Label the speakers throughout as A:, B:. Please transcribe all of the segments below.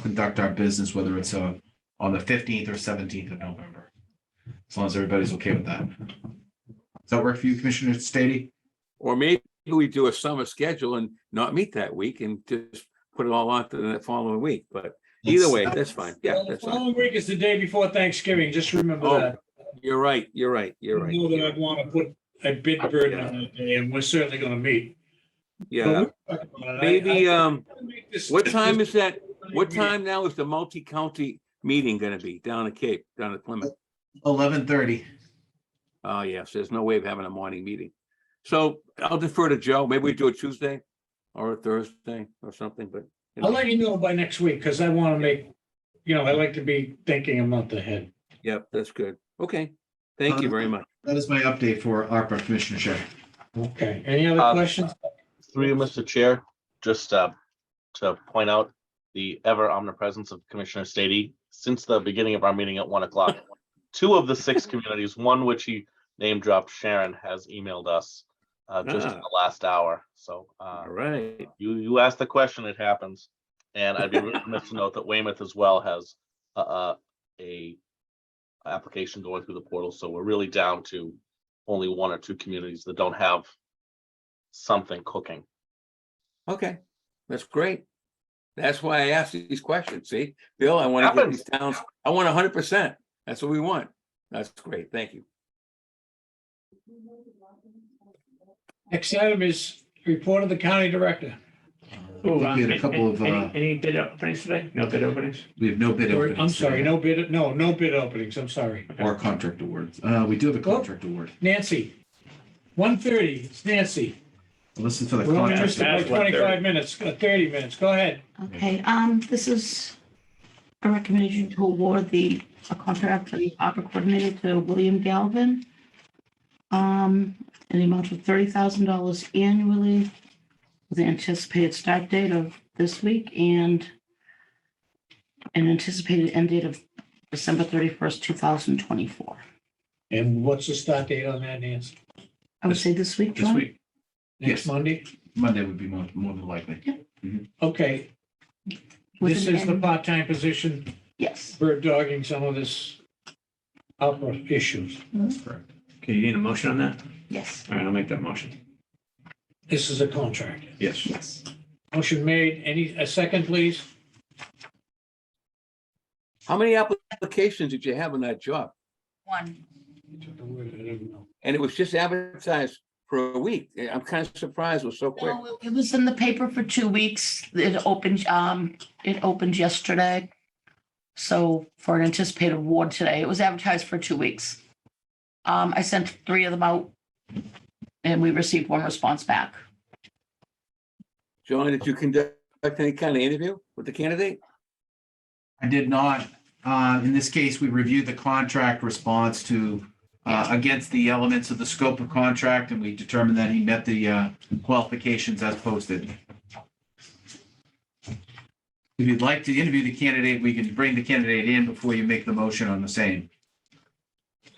A: conduct our business, whether it's uh, on the fifteenth or seventeenth of November. As long as everybody's okay with that. Does that work for you, Commissioner Stady?
B: Or maybe we do a summer schedule and not meet that week and just put it all on to the following week, but either way, that's fine. Yeah,
C: Well, the
B: that's fine.
C: Following week is the day before Thanksgiving, just remember
B: Oh,
C: that.
B: You're right, you're right, you're
C: You Know that I
B: right.
C: want to put a bid burden on that day, and we're certainly going to meet.
B: Yeah,
C: But we'll talk about it. I-
B: maybe,
C: I-
B: um,
C: This-
B: what time
C: this-
B: is that? What time now is the multi-county meeting gonna be down at Cape, down at Plymouth?
A: Eleven thirty.
B: Oh, yes, there's no way of having a morning meeting. So I'll defer to Joe. Maybe we do a Tuesday or a Thursday or something, but. you know,
C: I'll let you know by next week, because I want to make, you know, I like to be thinking a month ahead.
B: Yep, that's good. Okay, thank you very much.
A: That is my update for ARPA, Commissioner Shea.
C: Okay, any other
D: Uh,
C: questions?
D: Through you, Mr. Chair, just uh, to point out the ever omnipresence of Commissioner Stady since the beginning of our meeting at one o'clock. Two of the six communities, one which he name dropped, Sharon, has emailed us uh, just in
B: Ah.
D: the last hour. So uh,
B: All right.
D: you, you asked the question, it happens. And I'd be remiss to note that Weymouth as well has a, a, a application going through the portal. So we're really down to only one or two communities that don't have something cooking.
B: Okay, that's great. That's why I asked these questions. See, Bill, I want to get
D: Happens.
B: these towns, I want hundred percent. That's what we want. That's great. Thank you.
C: Next item is report of the county director.
A: Uh, I think We had a couple of, uh,
E: Any any bid openings today? No bid openings?
A: we have no bid.
C: Or- I'm
A: openings
C: sorry,
A: today,
C: no bid, no, no bid openings, I'm sorry.
A: Or contract awards. Uh, we do have a contract award.
C: Nancy, 1:30, it's Nancy.
A: Listen for the
C: We're only
A: contract.
C: missing
A: award.
C: like 25 minutes, uh, 30 minutes, go ahead.
F: Okay, um, this is a recommendation to award the, a contract for the opera coordinator to William Galvin. Um, in the amount of thirty thousand dollars annually with the anticipated start date of this week and an anticipated end date of December thirty-first, two thousand twenty-four.
C: And what's the start date on that, Nancy?
F: I would say this week,
A: This
F: John?
A: week,
C: Next
A: Yes.
C: Monday?
A: Monday would be more, more than likely.
C: Okay,
F: with
C: this
F: an
C: is the
F: end-
C: part-time position,
F: Yes,
C: bird dogging some of this opera issues.
A: That's correct.
E: Okay, you need a motion on that?
F: yes,
E: All right, I'll make that motion.
C: This is a contract.
E: Yes.
F: yes.
C: Motion made, any, a second, please?
B: How many applications did you have on that job?
F: One.
B: And it was just advertised for a week. I'm kind of surprised it was so quick.
F: No, it was in the paper for two weeks. It opened, um, it opened yesterday. So for an anticipated award today, it was advertised for two weeks. Um, I sent three of them out and we received one response back.
B: John, did you conduct any kind of interview with the candidate?
A: I did not. Uh, In this case, we reviewed the contract response to, uh, against the elements of the scope of contract, and we determined that he met the uh, qualifications as posted. If you'd like to interview the candidate, we can bring the candidate in before you make the motion on the same.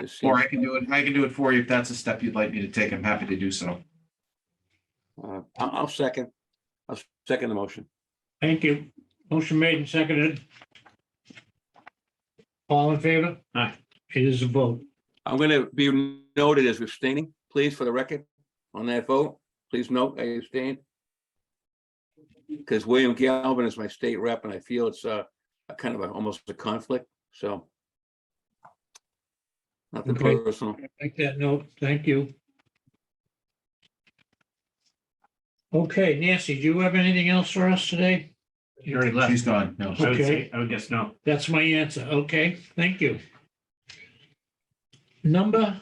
B: Just seems-
A: Or I can do it, I can do it for you if that's a step you'd like me to take. I'm happy to do so.
B: uh, I'll, I'll second. I'll second the motion.
C: Thank you. Motion made and seconded. All in favor?
E: Aye.
C: It is a vote.
B: I'm gonna be noted as abstaining, please, for the record, on that vote. Please note I abstained. Because William Galvin is my state rep, and I feel it's uh, a kind of a, almost a conflict, so. Nothing
C: Okay.
B: personal.
C: Make that note. Thank you. Okay, Nancy, do you have anything else for us today?
E: You already left.
A: She's gone. No.
E: I would
C: Okay.
E: say, I would guess no.
C: That's my answer. Okay, thank you. Number,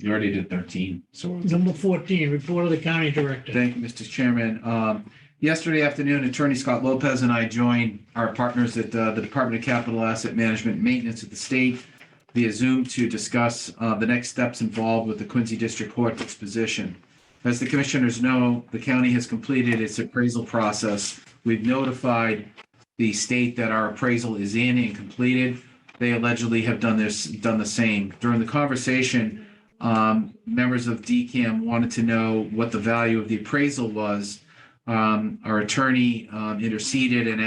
A: You already did 13, so. we're-
C: number fourteen, report of the county director.
A: Thank you, Mr. Chairman. Um, Yesterday afternoon, Attorney Scott Lopez and I joined our partners at uh, the Department of Capital Asset Management and Maintenance of the state via Zoom to discuss uh, the next steps involved with the Quincy District Court disposition. As the commissioners know, the county has completed its appraisal process. We've notified the state that our appraisal is in and completed. They allegedly have done this, done the same. During the conversation, um, members of DCAM wanted to know what the value of the appraisal was. Um, Um, Our attorney um, interceded and